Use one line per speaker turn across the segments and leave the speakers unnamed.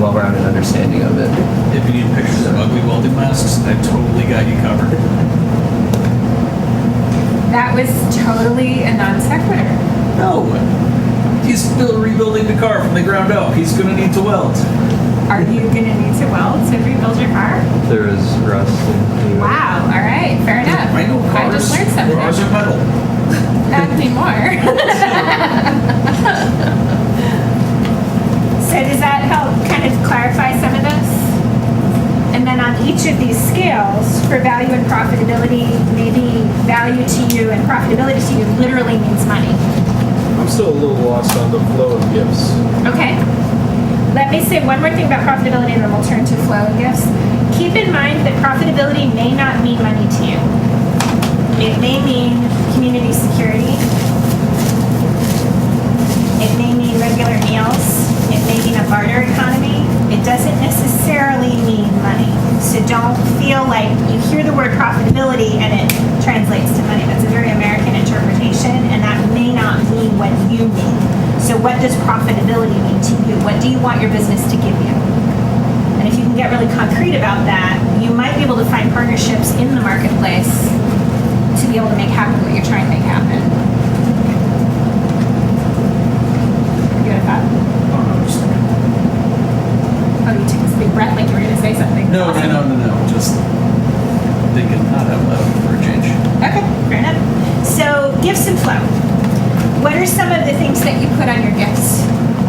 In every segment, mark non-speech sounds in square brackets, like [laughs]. well-rounded understanding of it.
If you need pictures of ugly welding masks, I totally got you covered.
That was totally a non sequitur.
No. He's still rebuilding the car from the ground up. He's gonna need to weld.
Are you gonna need to weld to rebuild your car?
There is rust. in the-
Wow. All right. Fair enough.
I know cars.
I just learned something.
Cars are metal.
Not anymore.
[laughs] So does that help kind of clarify some of this? And then on each of these scales, for value and profitability, maybe value to you and profitability to you literally means money.
I'm still a little lost on the flow of gifts.
Okay. Let me say one more thing about profitability and then we'll turn to flow and gifts. Keep in mind that profitability may not mean money to you. It may mean community security. It may mean regular meals. It may mean a barter economy. It doesn't necessarily mean money. So don't feel like you hear the word profitability and it translates to money. That's a very American interpretation, and that may not mean what you mean. So what does profitability mean to you? What do you want your business to give you? And if you can get really concrete about that, you might be able to find partnerships in the marketplace to be able to make happen what you're trying to make happen. You got a thought? Oh, you took this big breath like you were going to say something.
No, no, no, no, no. Just thinking not out loud for a change.
Okay, fair enough. So, gifts and flow. What are some of the things that you put on your gifts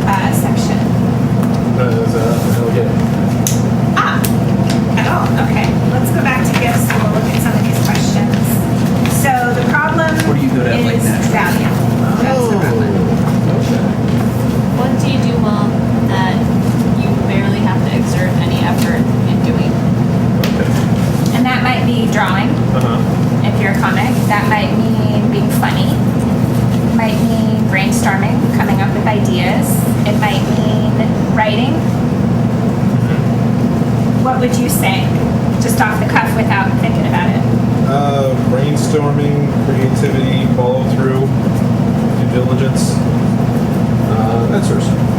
uh, section?
As a, okay.
Ah, at all. Okay, let's go back to gifts and we'll look at some of these questions. So, the problem
What are you good at, like,
is
naturally?
value. That's the problem.
Okay.
What do you do well that you barely have to exert any effort in doing?
Okay.
and that might be drawing.
Uh-huh.
If you're a comic, that might mean being funny. Might mean brainstorming, coming up with ideas. It might mean writing.
Mm-hmm.
What would you say, just off the cuff without thinking about it?
Uh, brainstorming, creativity, follow through, due diligence, uh, that sort of stuff.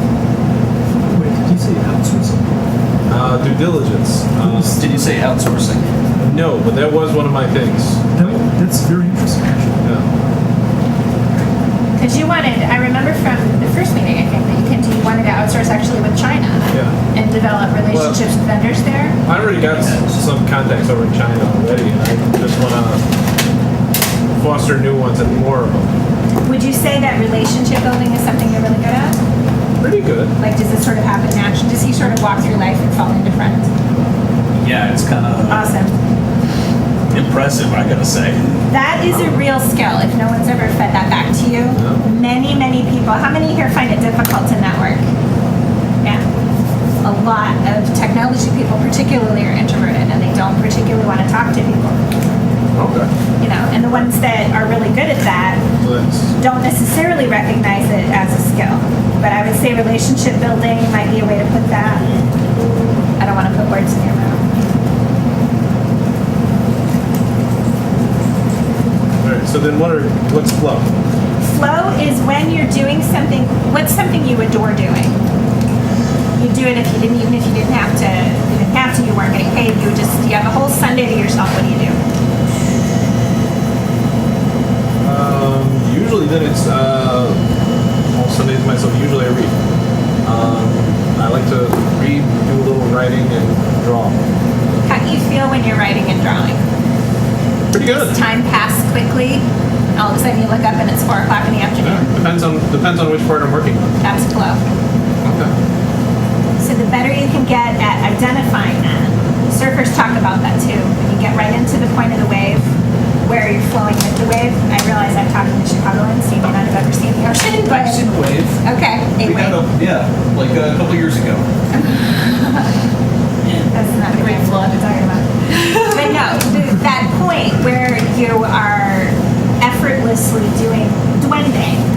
Wait, did you say outsourcing?
Uh, due diligence. Uh,
Did you say outsourcing?
no, but that was one of my things.
That, that's very interesting, actually.
Yeah.
Because you wanted, I remember from the first meeting, I think, that you came to, you wanted to outsource actually with China
Yeah.
and develop relationships with vendors there.
I already got s- some contacts over in China already, and I just want to foster new ones and more of them.
Would you say that relationship building is something you're really good at?
Pretty good.
Like, does this sort of happen naturally? Does he sort of walk through life and fall into friends?
Yeah, it's kind of
Awesome.
impressive, I gotta say.
That is a real skill. If no one's ever fed that back to you, many, many people. How many here find it difficult to network? Yeah. A lot of technology people, particularly, are introverted and they don't particularly want to talk to people.
Okay.
You know, and the ones that are really good at that
So that's
don't necessarily recognize it as a skill. But I would say relationship building might be a way to put that. I don't want to put words in your mouth.
all right. So then, what are what's flow?
Flow is when you're doing something, what's something you adore doing? You do it if you didn't, even if you didn't have to, you didn't have to, you weren't getting paid, you would just, you have a whole Sunday to yourself, what do you do?
Um, usually, then it's uh, all Sundays myself. Usually, I read. Um, I like to read, do a little writing, and draw.
How do you feel when you're writing and drawing?
Pretty good.
Does time pass quickly? All of a sudden you look up and it's four o'clock in the afternoon.
Yeah, depends on depends on which part I'm working on.
That's flow.
Okay.
So the better you can get at identifying that. Surfers talk about that too. When you get right into the point of the wave, where you're flowing with the wave. I realize I'm talking to Chicagoans, so you may not have ever seen the ocean, but
I've seen a wave.
okay,
We
anyway,
got a, yeah, like uh, a couple years ago.
that's not the wave flow I'm talking about. but no, th- that point where you are effortlessly doing, doing
Mm-hmm. Ah.